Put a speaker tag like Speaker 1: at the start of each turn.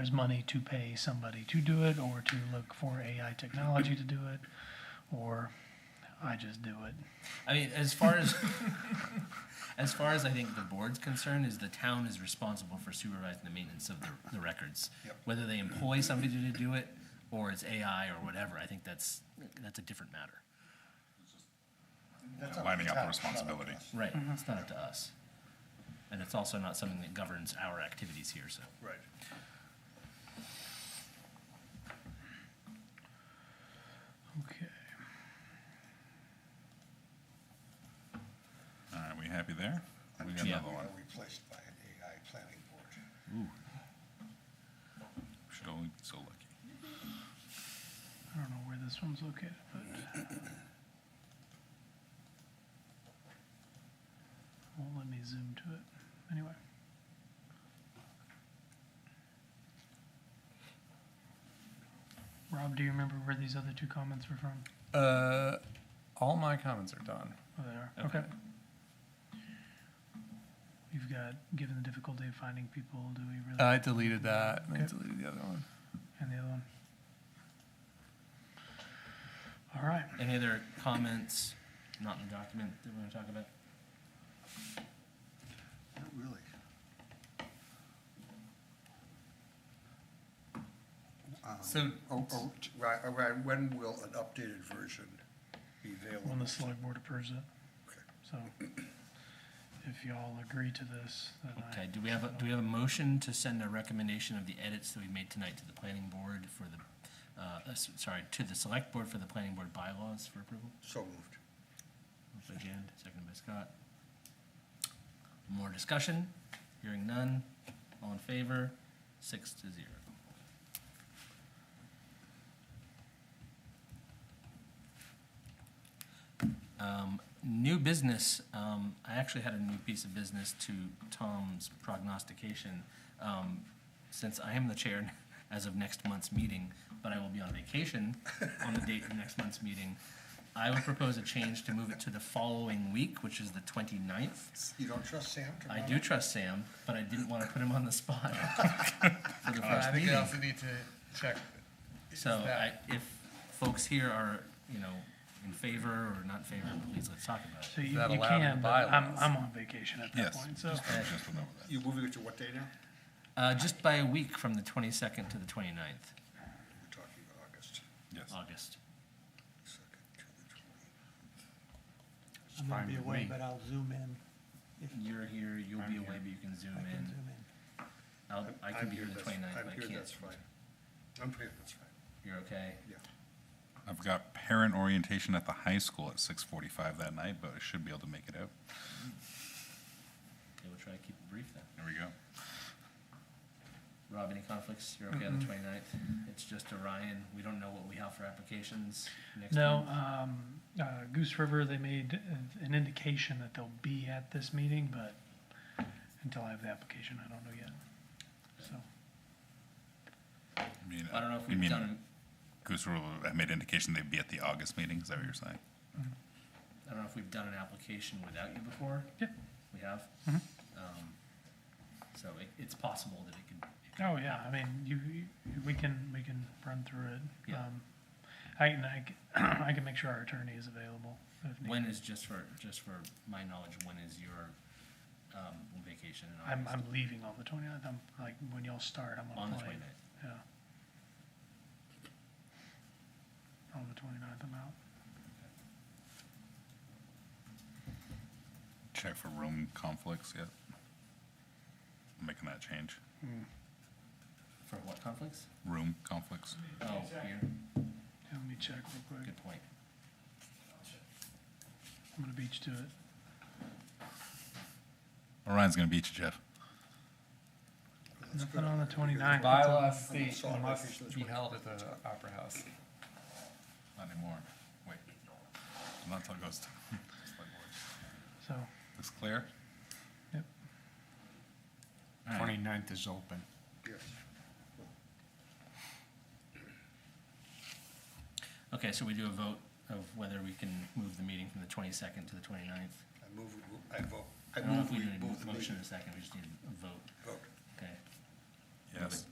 Speaker 1: is money to pay somebody to do it, or to look for AI technology to do it, or I just do it.
Speaker 2: I mean, as far as as far as I think the board's concerned, is the town is responsible for supervising the maintenance of the, the records.
Speaker 3: Yep.
Speaker 2: Whether they employ somebody to do it or it's AI or whatever, I think that's that's a different matter.
Speaker 3: That's up to
Speaker 4: Uh, lining up
Speaker 3: town,
Speaker 4: the responsibility.
Speaker 3: not up to us.
Speaker 2: Right. It's not up to us. And it's also not something that governs our activities here. So
Speaker 3: Right.
Speaker 1: Okay.
Speaker 4: All right, we happy there? We got
Speaker 2: Yeah.
Speaker 4: another one.
Speaker 3: Replaced by an AI planning board.
Speaker 4: Should only, so lucky.
Speaker 1: I don't know where this one's located, but. Won't let me zoom to it. Anyway. Rob, do you remember where these other two comments were from?
Speaker 5: Uh, all my comments are done.
Speaker 1: Oh, they are,
Speaker 2: Okay.
Speaker 1: okay. We've got, given the difficulty of finding people, do we really?
Speaker 5: I deleted that and I
Speaker 1: Okay.
Speaker 5: deleted the other one.
Speaker 1: And the other one? All right.
Speaker 2: any other comments not in the document that we want to talk about?
Speaker 3: Not really. Um,
Speaker 5: So-
Speaker 3: oh, oh, t- Right, all right, when will an updated version be available?
Speaker 1: when the select board approves it.
Speaker 3: Okay.
Speaker 1: So if y'all agree to this, then I.
Speaker 2: Okay. Do we have a, do we have a motion to send a recommendation of the edits that we made tonight to the planning board for the, uh, uh, s- sorry, to the select board for the planning board bylaws for approval?
Speaker 3: So moved.
Speaker 2: Moved by Jan, seconded by Scott. More discussion? Hearing none. All in favor? Six to zero. Um, New business, um, I actually had a new piece of business to Tom's prognostication. Um, Since I am the chair as of next month's meeting, but I will be on vacation on the date of next month's meeting, I would propose a change to move it to the following week, which is the 29th.
Speaker 3: You don't trust Sam
Speaker 2: I
Speaker 3: tomorrow?
Speaker 2: do trust Sam, but I didn't want to put him on the spot for the first meeting.
Speaker 5: need to check.
Speaker 2: So I, if folks here are, you know, in favor or not in favor, please let's talk about it.
Speaker 1: So you
Speaker 5: that
Speaker 1: you
Speaker 5: allowed in
Speaker 1: can,
Speaker 5: the
Speaker 1: but I'm,
Speaker 5: bylaws?
Speaker 1: I'm on vacation at that
Speaker 4: Yes.
Speaker 1: point, so.
Speaker 4: Just went over that.
Speaker 3: You're moving it to what day now?
Speaker 2: Uh, just by a week from the 22nd to the 29th,
Speaker 3: We're talking about August
Speaker 4: Yes.
Speaker 2: August.
Speaker 3: second to the twenty.
Speaker 6: I'm gonna
Speaker 2: Fine
Speaker 6: be
Speaker 2: with me.
Speaker 6: away, but I'll zoom in. if
Speaker 2: You're here, you'll be away, but you can zoom
Speaker 6: I can
Speaker 2: in.
Speaker 6: zoom in.
Speaker 2: I'll, I
Speaker 3: I'm
Speaker 2: can be here the
Speaker 3: that's-
Speaker 2: 29th, but
Speaker 3: I'm
Speaker 2: I
Speaker 3: here,
Speaker 2: can't.
Speaker 3: that's fine. I'm here, that's fine,
Speaker 2: You're okay?
Speaker 3: yeah.
Speaker 4: I've got parent orientation at the high school at six forty-five that night, but I should be able to make it out.
Speaker 2: Okay, we'll try to keep it brief then.
Speaker 4: There we go.
Speaker 2: Rob, any conflicts? You're okay on the 29th? It's just Orion. We don't know what we have for applications next
Speaker 1: No,
Speaker 2: month.
Speaker 1: um, uh, Goose River, they made an indication that they'll be at this meeting, but until I have the application, I don't know yet. So,
Speaker 4: I
Speaker 1: uh,
Speaker 4: mean,
Speaker 2: I don't know if
Speaker 4: you
Speaker 2: we've
Speaker 4: mean
Speaker 2: done,
Speaker 4: Goose Rule, I made indication they'd be at the August meeting, is that what you're saying?
Speaker 2: I don't know if we've done an application without you before.
Speaker 1: yeah,
Speaker 2: We have.
Speaker 1: Mm-hmm.
Speaker 2: Um, So it, it's possible that it could, it could-
Speaker 1: oh, yeah, I mean, you, you- we can, we can run through it.
Speaker 2: Yeah.
Speaker 1: Um, I can, I can, I can make sure our attorney is available if need
Speaker 2: when is, just for, just for my knowledge, when is your, um, vacation in
Speaker 1: I'm,
Speaker 2: August?
Speaker 1: I'm leaving on the 29th. I'm like, when y'all start, I'm
Speaker 2: On
Speaker 1: on
Speaker 2: the
Speaker 1: a plane.
Speaker 2: 29th.
Speaker 1: Yeah. On the 29th, I'm out.
Speaker 4: Check for room conflicts yet? I'm Making that change.
Speaker 2: For what conflicts?
Speaker 4: Room conflicts?
Speaker 2: Oh, here,
Speaker 1: Yeah, Let me check real quick.
Speaker 2: good point.
Speaker 1: I'm gonna beach to it.
Speaker 4: Orion's gonna beat you, Jeff.
Speaker 3: That's
Speaker 1: Nothing
Speaker 3: good.
Speaker 1: on the 29th.
Speaker 5: Bylaw
Speaker 1: That's on-
Speaker 5: state
Speaker 3: on the
Speaker 5: must
Speaker 3: solid
Speaker 5: be
Speaker 3: waste.
Speaker 5: held at the Opera House.
Speaker 4: Not anymore. Wait. Not till it goes to.
Speaker 1: So,
Speaker 4: Looks clear?
Speaker 1: yep.
Speaker 4: All right.
Speaker 7: Twenty-ninth is open.
Speaker 3: Yes.
Speaker 2: Okay, so we do a vote of whether we can move the meeting from the 22nd to the 29th.
Speaker 3: I move, we- I vote, I
Speaker 2: I don't know if
Speaker 3: move,
Speaker 2: Uh, we
Speaker 3: we
Speaker 2: need
Speaker 3: move the
Speaker 2: a motion
Speaker 3: meeting.
Speaker 2: in a second, we just need a vote,
Speaker 3: Vote.
Speaker 2: okay?
Speaker 4: Yes.